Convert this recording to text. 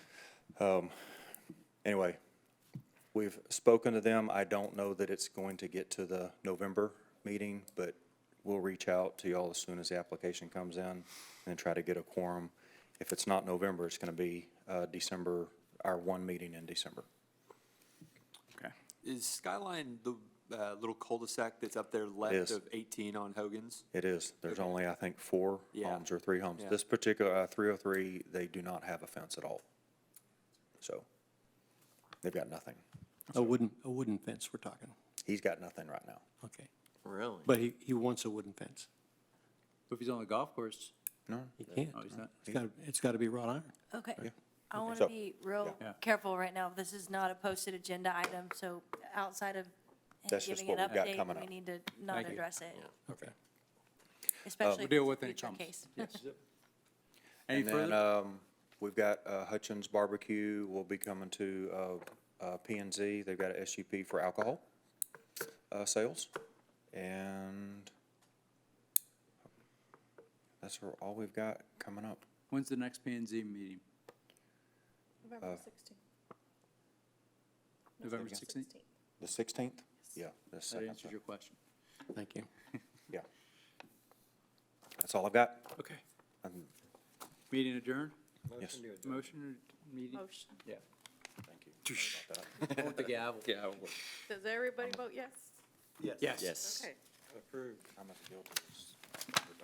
Anyway, we've spoken to them. I don't know that it's going to get to the November meeting, but we'll reach out to y'all as soon as the application comes in and try to get a quorum. If it's not November, it's going to be uh, December, our one meeting in December. Okay. Is Skyline the uh, little cul-de-sac that's up there left Yes. of 18 on Hogan's? It is. There's only, I think, four Yeah. homes or three homes. Yeah. This particular, uh, 303, they do not have a fence at all. So they've got nothing. A wooden, a wooden fence we're talking, He's got nothing right now. okay. Really? But he, he wants a wooden fence. If he's on the golf course, He can't. Oh, he's not. It's got, it's got to be wrought iron. Okay. I want So- to be real Yeah. careful right now. This is not a posted agenda item, so outside of him That's just giving an what we've got coming update, we up. need to not Thank you. address it, Okay. especially Deal if with it's a it, it future comes. case. Yes. Any And then, further? um, we've got uh, Hutchins Barbecue will be coming to, uh, uh, P and Z. They've got a SUP for alcohol, uh, sales. And that's all we've got coming up. When's the next P and Z meeting? November sixteenth. Uh, November sixteenth? The sixteenth? Yeah. the That second answers one. your question. Thank you. Yeah. That's all I've got. Okay. Um, Meeting adjourned? Yes. Motion or meeting? Motion. Yeah. Thank you. With the gavel. Gavel. Does everybody vote yes? Yes. Yes. Okay. I'm at the Gilbert's.